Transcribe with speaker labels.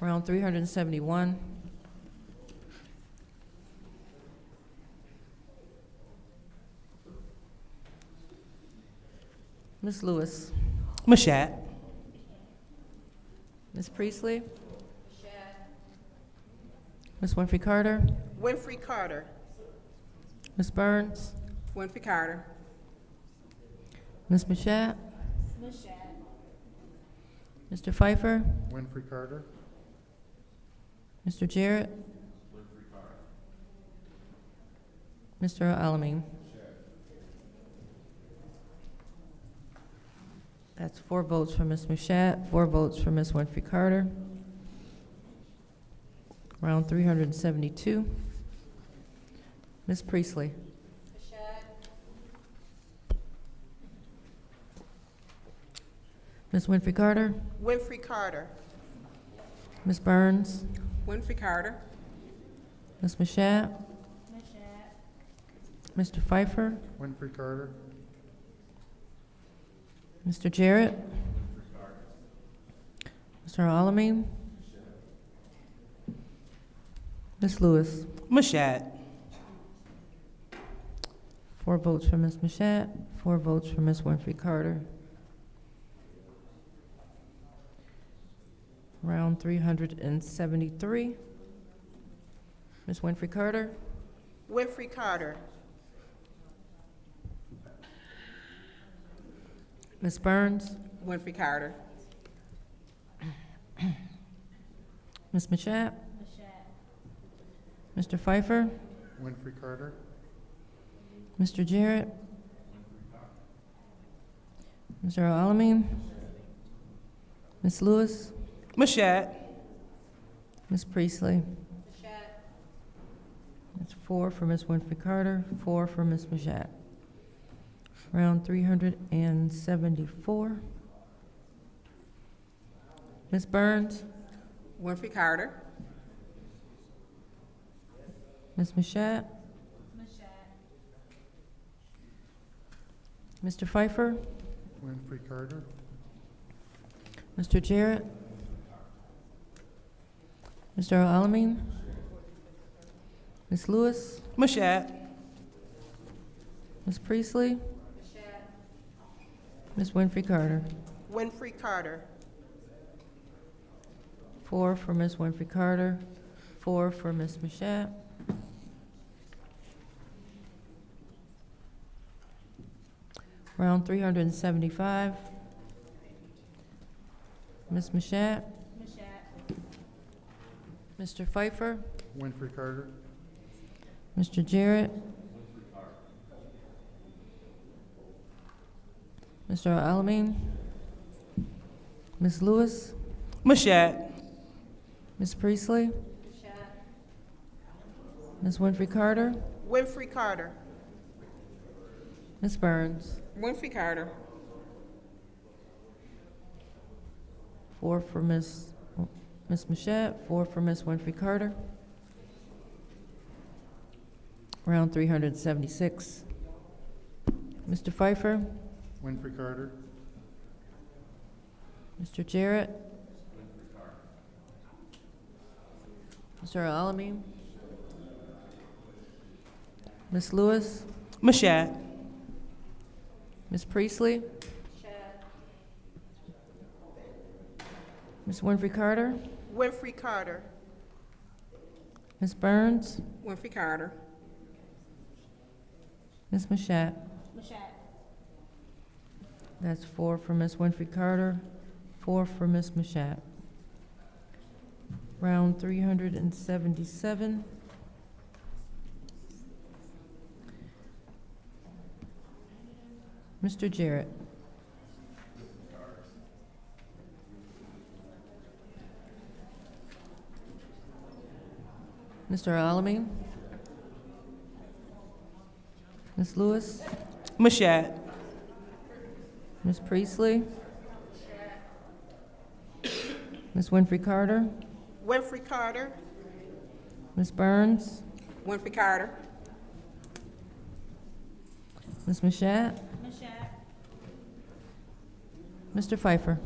Speaker 1: Round 371. Ms. Lewis.
Speaker 2: Mashat.
Speaker 1: Ms. Priestley. Ms. Winfrey Carter.
Speaker 3: Winfrey Carter.
Speaker 1: Ms. Burns.
Speaker 3: Winfrey Carter.
Speaker 1: Ms. Mashat. Mr. Pfeiffer.
Speaker 4: Winfrey Carter,
Speaker 1: Mr. Jarrett? Mr. Alamin? That's four votes for Ms. Mashat, four votes for Ms. Winfrey Carter. Round three hundred and seventy-two. Ms. Priestley? Ms. Winfrey Carter?
Speaker 3: Winfrey Carter.
Speaker 1: Ms. Burns?
Speaker 3: Winfrey Carter.
Speaker 1: Ms. Mashat? Mr. Pfeiffer?
Speaker 4: Winfrey Carter,
Speaker 1: Mr. Jarrett? Mr. Alamin? Ms. Lewis?
Speaker 2: Mashat.
Speaker 1: Four votes for Ms. Mashat, four votes for Ms. Winfrey Carter. Round three hundred and seventy-three. Ms. Winfrey Carter?
Speaker 3: Winfrey Carter.
Speaker 1: Ms. Burns?
Speaker 3: Winfrey Carter.
Speaker 1: Ms. Mashat? Mr. Pfeiffer?
Speaker 4: Winfrey Carter,
Speaker 1: Mr. Jarrett? Mr. Alamin? Ms. Lewis?
Speaker 2: Mashat.
Speaker 1: Ms. Priestley? That's four for Ms. Winfrey Carter, four for Ms. Mashat. Round three hundred and seventy-four. Ms. Burns?
Speaker 3: Winfrey Carter.
Speaker 1: Ms. Mashat? Mr. Pfeiffer?
Speaker 4: Winfrey Carter,
Speaker 1: Mr. Jarrett? Mr. Alamin? Ms. Lewis?
Speaker 2: Mashat.
Speaker 1: Ms. Priestley? Ms. Winfrey Carter?
Speaker 3: Winfrey Carter.
Speaker 1: Four for Ms. Winfrey Carter, four for Ms. Mashat. Round three hundred and seventy-five. Ms. Mashat? Mr. Pfeiffer?
Speaker 4: Winfrey Carter,
Speaker 1: Mr. Jarrett? Mr. Alamin? Ms. Lewis?
Speaker 2: Mashat.
Speaker 1: Ms. Priestley? Ms. Winfrey Carter?
Speaker 3: Winfrey Carter.
Speaker 1: Ms. Burns?
Speaker 3: Winfrey Carter.
Speaker 1: Four for Ms., Ms. Mashat, four for Ms. Winfrey Carter. Round three hundred and seventy-six. Mr. Pfeiffer?
Speaker 4: Winfrey Carter,
Speaker 1: Mr. Jarrett? Mr. Alamin? Ms. Lewis?
Speaker 2: Mashat.
Speaker 1: Ms. Priestley? Ms. Winfrey Carter?
Speaker 3: Winfrey Carter.
Speaker 1: Ms. Burns?
Speaker 3: Winfrey Carter.
Speaker 1: Ms. Mashat? Mashat. That's four for Ms. Winfrey Carter, four for Ms. Mashat. Round three hundred and seventy-seven. Mr. Jarrett? Mr. Alamin? Ms. Lewis?
Speaker 2: Mashat.
Speaker 1: Ms. Priestley? Ms. Winfrey Carter?
Speaker 3: Winfrey Carter.
Speaker 1: Ms. Burns?
Speaker 3: Winfrey Carter.
Speaker 1: Ms. Mashat? Mr. Pfeiffer?